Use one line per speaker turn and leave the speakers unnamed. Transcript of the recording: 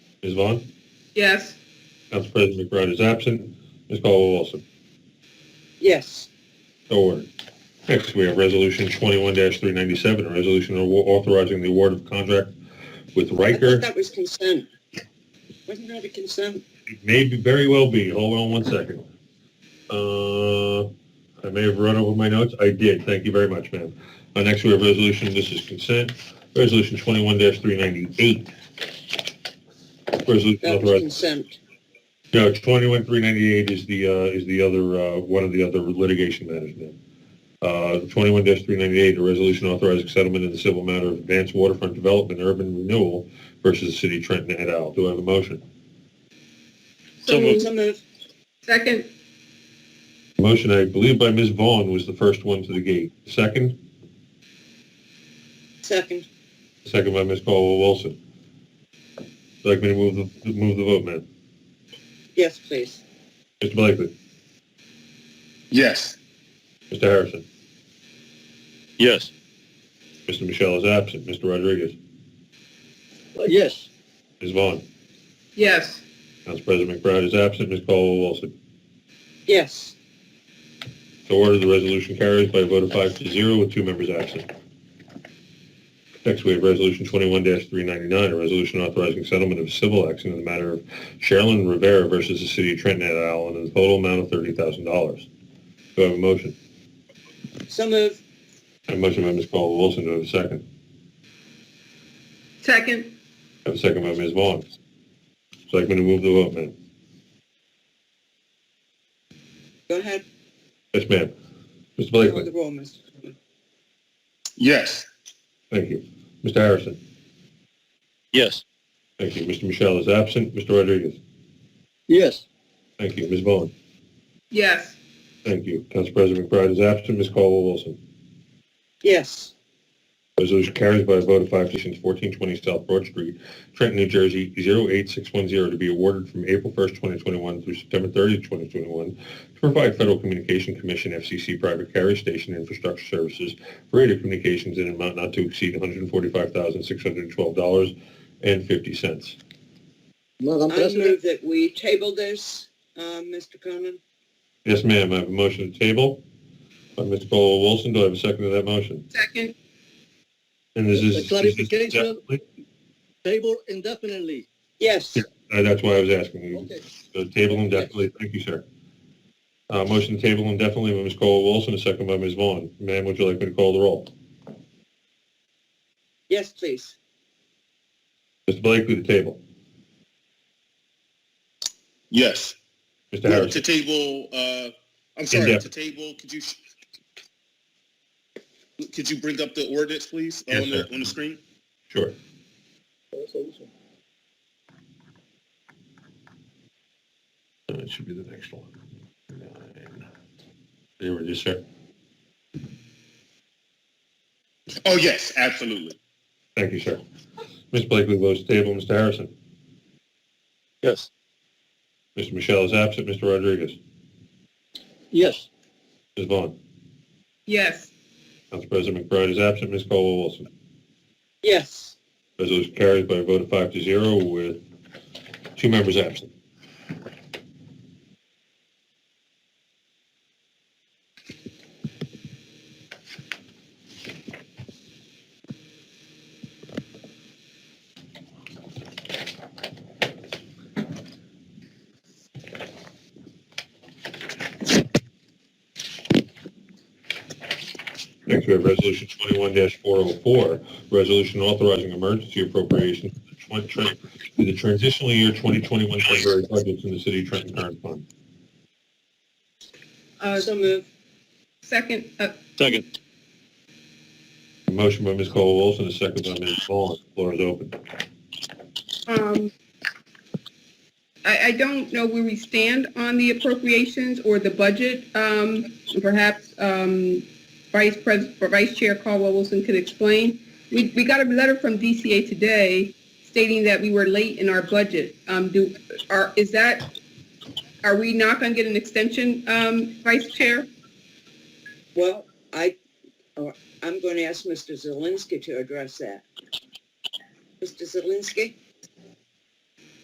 Ms. Vaughn?
Yes.
Council President McBride is absent. Ms. Caldwell Wilson?
Yes.
So ordered. Next, we have Resolution 21-397, a resolution au- authorizing the award of contract with
I thought
Riker.
that was consent. Wasn't that a consent?
May be- very well be. Hold on one second. Uh, I may have run over my notes. I did. Thank you very much, ma'am. Uh, Next, we have Resolution, this is consent, Resolution 21-398. Resolution
That was
authorizing
consent.
No, twenty-one, three ninety-eight is the, uh, is the other, uh, one of the other litigation matters then. Uh, twenty-one three ninety-eight, a resolution authorizing settlement in the civil matter of advanced waterfront development and urban renewal versus the city of Trenton et al. Do I have a motion?
So moved.
So moved.
Second?
Motion, I believe by Ms. Vaughn was the first one to the gate. Second,
Second.
second by Ms. Caldwell Wilson. Would you Like me to move the, move the vote, ma'am?
Yes, please.
Mr. Blakely,
Yes.
Mr. Harrison,
Yes.
Mr. Michelle is absent, Mr. Rodriguez,
Yes.
Ms. Vaughn,
Yes.
Council President McBride is absent, Ms. Caldwell Wilson.
Yes.
So ordered, the resolution carries by a vote of five to zero with two members absent. Next, we have Resolution 21-399, a resolution authorizing settlement of civil action in the matter of Sherilyn Rivera versus the City of Trenton et al. in a total amount of $30,000. Do I have a motion?
So moved.
I have a motion by Ms. Caldwell-Wilson. Do I have a second?
Second?
I have a second by Ms. Vaughn. Selectman to move the vote, ma'am.
Go ahead.
Yes, ma'am. Mr.
Call
Blakely.
the roll, Mr. Chairman.
Yes.
Thank you. Mr. Harrison.
Yes.
Thank you. Mr. Michelle is absent. Mr. Rodriguez.
Yes.
Thank you. Ms. Vaughn.
Yes.
Thank you. Council President McBride is absent. Ms. Caldwell-Wilson.
Yes.
Resolution carries by a vote of five to zero, 1420 South Broad Street, Trenton, New Jersey, 08610, to be awarded from April 1st, 2021 through September 30th, 2021, to provide Federal Communication Commission FCC private carrier station infrastructure services for radio communications in an amount not to exceed $145,612.50.
Madam
I move that we table this, uh, Mr. Cronin.
Yes, ma'am, I have a motion to table by Ms. Caldwell-Wilson. Do I have a second to that motion?
Second?
And this is...
Just a clarification.
Definitely-
table indefinitely.
Yes.
Yeah. Uh, That's why I was asking. You
Okay.
So table indefinitely, thank you, sir. Uh, motion to table indefinitely by Ms. Colwell Wilson, a second by Ms. Vaughn. Ma'am, would you like me to call the roll?
Yes, please.
Mr. Blakely to table.
Yes.
Mr.
Move
Harrison.
to table, uh, I'm sorry,
Indef-
to table, could you, could you bring up the ordinance, please,
Yes,
on the,
sir.
on the screen?
Sure. Uh, It should be the next one. Nine. There it is, sir.
Oh, yes, absolutely.
Thank you, sir. Ms. Blakely votes to table. Mr. Harrison.
Yes.
Mr. Michelle is absent. Mr. Rodriguez.
Yes,
Ms. Vaughn.
Yes.
Council President McBride is absent. Ms. Colwell Wilson.
Yes.
Resolution carries by a vote of five to zero with two members absent. Next, we have Resolution 21-404, resolution authorizing emergency appropriation to the twen- tran- to the transitional year 2021 temporary budgets in the city of Trenton current fund.
Uh,
So moved.
second? Uh,
Second.
A motion by Ms. Colwell Wilson, a second by Ms. Vaughn. Floor is open.
um, I, I don't know where we stand on the appropriations or the budget. Um, perhaps, um, Vice Pres, Vice Chair Caldwell Wilson could explain. We, we got a letter from DCA today stating that we were late in our budget. Um, do, are, is that, are we not going to get an extension, um, Vice Chair?
Well, I, oh, I'm going to ask Mr. Zelinski to address that. Mr. Zelinski?